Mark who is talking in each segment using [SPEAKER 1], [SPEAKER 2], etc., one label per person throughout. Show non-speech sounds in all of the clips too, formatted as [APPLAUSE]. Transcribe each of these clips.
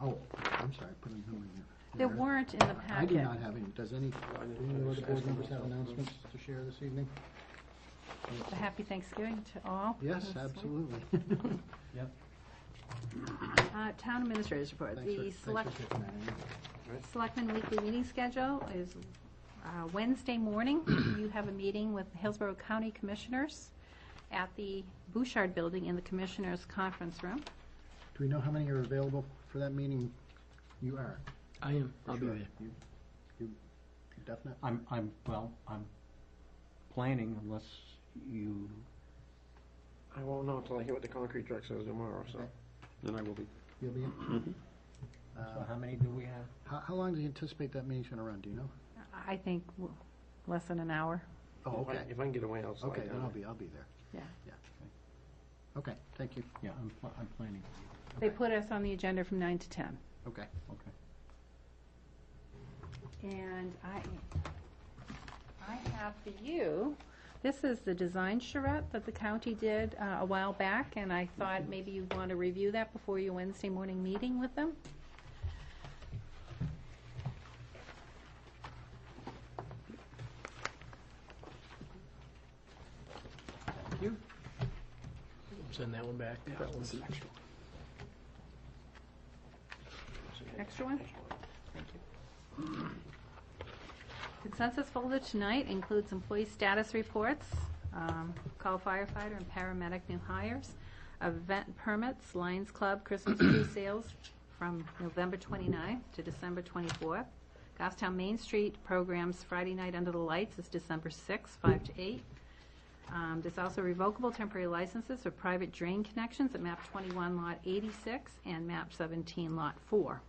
[SPEAKER 1] Oh, I'm sorry, put them in here.
[SPEAKER 2] There
[SPEAKER 1] Yeah.
[SPEAKER 2] weren't in the
[SPEAKER 1] I do
[SPEAKER 2] packet.
[SPEAKER 1] not have any. Does any, do any of the board members have announcements to share this evening?
[SPEAKER 2] A happy Thanksgiving to all.
[SPEAKER 1] Yes,
[SPEAKER 2] That's sweet.
[SPEAKER 1] absolutely. [LAUGHS]
[SPEAKER 2] Uh, Town administrators report.
[SPEAKER 1] Thanks for-
[SPEAKER 2] The
[SPEAKER 1] thanks for
[SPEAKER 2] select,
[SPEAKER 1] taking that, Amy.
[SPEAKER 2] selectmen weekly meeting schedule is uh,
[SPEAKER 1] [CLEARS THROAT]
[SPEAKER 2] Wednesday morning. You have a meeting with Hillsborough County Commissioners at the Bouchard Building in the Commissioners Conference Room.
[SPEAKER 1] Do we know how many are available for that meeting? You are.
[SPEAKER 3] I am,
[SPEAKER 1] for
[SPEAKER 3] I'll be
[SPEAKER 1] sure.
[SPEAKER 3] there.
[SPEAKER 1] You, you you definite?
[SPEAKER 4] I'm, I'm, well, I'm planning unless you,
[SPEAKER 3] I won't know until I hear what the concrete truck says tomorrow, so.
[SPEAKER 1] Okay.
[SPEAKER 5] Then I will be.
[SPEAKER 1] You'll be in?
[SPEAKER 4] so
[SPEAKER 1] Uh,
[SPEAKER 4] how many do we have?
[SPEAKER 1] How, how long do you anticipate that meeting's gonna run, do you know?
[SPEAKER 2] I think w- less than an hour.
[SPEAKER 1] Oh,
[SPEAKER 3] If I-
[SPEAKER 1] okay.
[SPEAKER 3] If I can get away, I'll slide
[SPEAKER 1] Okay,
[SPEAKER 3] down.
[SPEAKER 1] then I'll be, I'll be there.
[SPEAKER 2] Yeah.
[SPEAKER 1] Yeah. Okay, thank you.
[SPEAKER 4] Yeah, I'm, pl- I'm planning,
[SPEAKER 2] They
[SPEAKER 1] Okay.
[SPEAKER 2] put us on the agenda from nine to ten.
[SPEAKER 1] Okay.
[SPEAKER 4] okay.
[SPEAKER 2] And I, I have for you, this is the design charrette that the county did uh, a while back, and I thought maybe you'd want to review that before your Wednesday morning meeting with them.
[SPEAKER 1] You?
[SPEAKER 3] Send that one back. That one's an extra.
[SPEAKER 2] Extra one? Consensus folder tonight includes employee status reports, um, call firefighter and paramedic new hires, event permits, Lions Club Christmas tree sales from November 29th to December 24th. Goffstown Main Street programs Friday night under the lights is December 6th, 5 to 8. Um, There's also revocable temporary licenses for private drain connections at map 21 lot 86 and map 17 lot 4.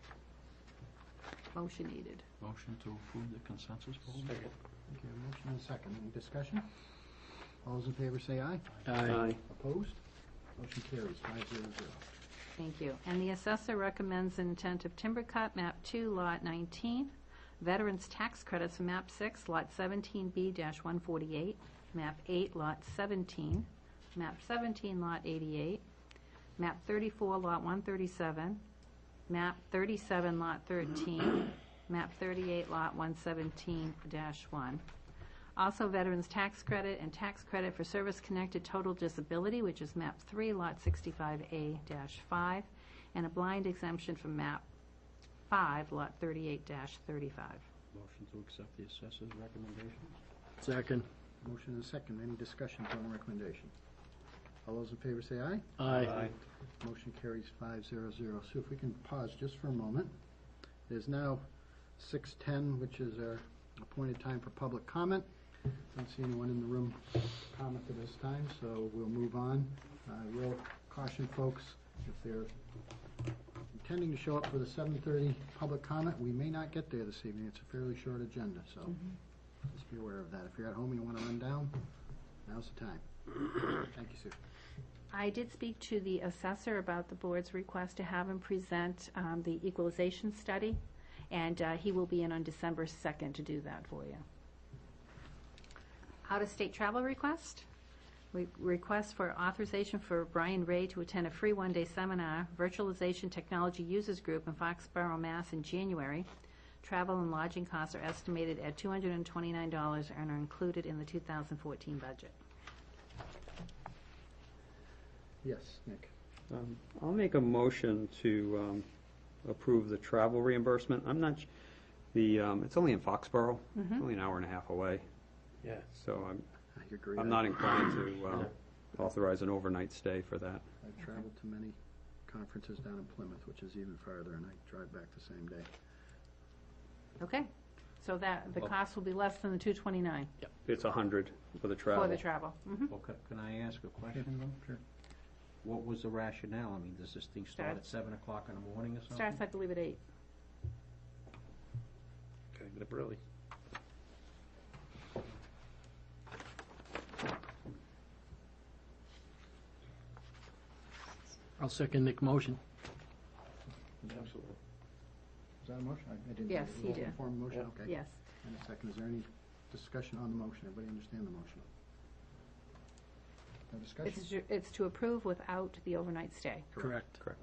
[SPEAKER 2] Motion needed.
[SPEAKER 4] Motion to approve the consensus vote?
[SPEAKER 1] Thank you. Motion and a second. Any discussion? All those in favor say aye.
[SPEAKER 3] Aye.
[SPEAKER 1] Opposed? Motion carries five zero zero.
[SPEAKER 2] Thank you. And the assessor recommends an intent of timber cut, map 2, lot 19, veterans tax credits for map 6, lot 17B-148, map 8, lot 17, map 17, lot 88, map 34, lot 137, map 37, lot 13, map 38, lot 117-1. Also veterans tax credit and tax credit for service-connected total disability, which is map three, lot sixty-five A five, and a blind exemption from map five, lot thirty-eight thirty-five.
[SPEAKER 4] Motion to accept the assessor's recommendations?
[SPEAKER 3] Second.
[SPEAKER 1] Motion and a second. Any discussions on the recommendation? All those in favor say aye.
[SPEAKER 3] Aye.
[SPEAKER 1] Motion carries five zero zero. So if we can pause just for a moment. It is now six ten, which is our appointed time for public comment. Don't see anyone in the room to comment at this time, so we'll move on. I will caution folks, if they're intending to show up for the seven thirty public comment, we may not get there this evening. It's a fairly short agenda, so just be aware of that. If you're at home, you want to run down, now's the time. Thank you, Sue.
[SPEAKER 2] I did speak to the assessor about the board's request to have him present um, the equalization study, and uh, he will be in on December 2nd to do that for you. Out-of-state travel request. We- Request for authorization for Brian Ray to attend a free one-day seminar, Virtualization Technology Users Group in Foxborough, Mass. in January. Travel and lodging costs are estimated at $229 and are included in the 2014 budget.
[SPEAKER 1] Yes, Nick.
[SPEAKER 5] Um, I'll make a motion to um, approve the travel reimbursement. I'm not, sh- the, um, it's only in Foxborough, It's only an hour and a half away,
[SPEAKER 3] Yeah.
[SPEAKER 5] so I'm,
[SPEAKER 1] I agree.
[SPEAKER 5] I'm not inclined to um, authorize an overnight stay for that.
[SPEAKER 1] I've traveled to many conferences down in Plymouth, which is even farther, and I drive back the same day.
[SPEAKER 2] Okay, so that, the
[SPEAKER 5] Well-
[SPEAKER 2] cost will be less than the two twenty-nine
[SPEAKER 5] It's a hundred for the travel.
[SPEAKER 2] for the travel. Mhm.
[SPEAKER 4] Well, ca- can I ask a question though? Sure. What was the rationale? I mean, does this thing start at
[SPEAKER 2] Starts-
[SPEAKER 4] seven o'clock in the morning or something?
[SPEAKER 2] Starts, I believe, at eight.
[SPEAKER 3] Gotta get up early. I'll second Nick's motion. Absolutely.
[SPEAKER 1] Is that a motion? I I didn't.
[SPEAKER 2] Yes, you did.
[SPEAKER 1] Form motion, okay.
[SPEAKER 2] Yes.
[SPEAKER 1] And a second, is there any discussion on the motion? Everybody understand the motion? No discussion?
[SPEAKER 2] It's, ju- it's to approve without the overnight stay.
[SPEAKER 3] Correct.
[SPEAKER 5] Correct.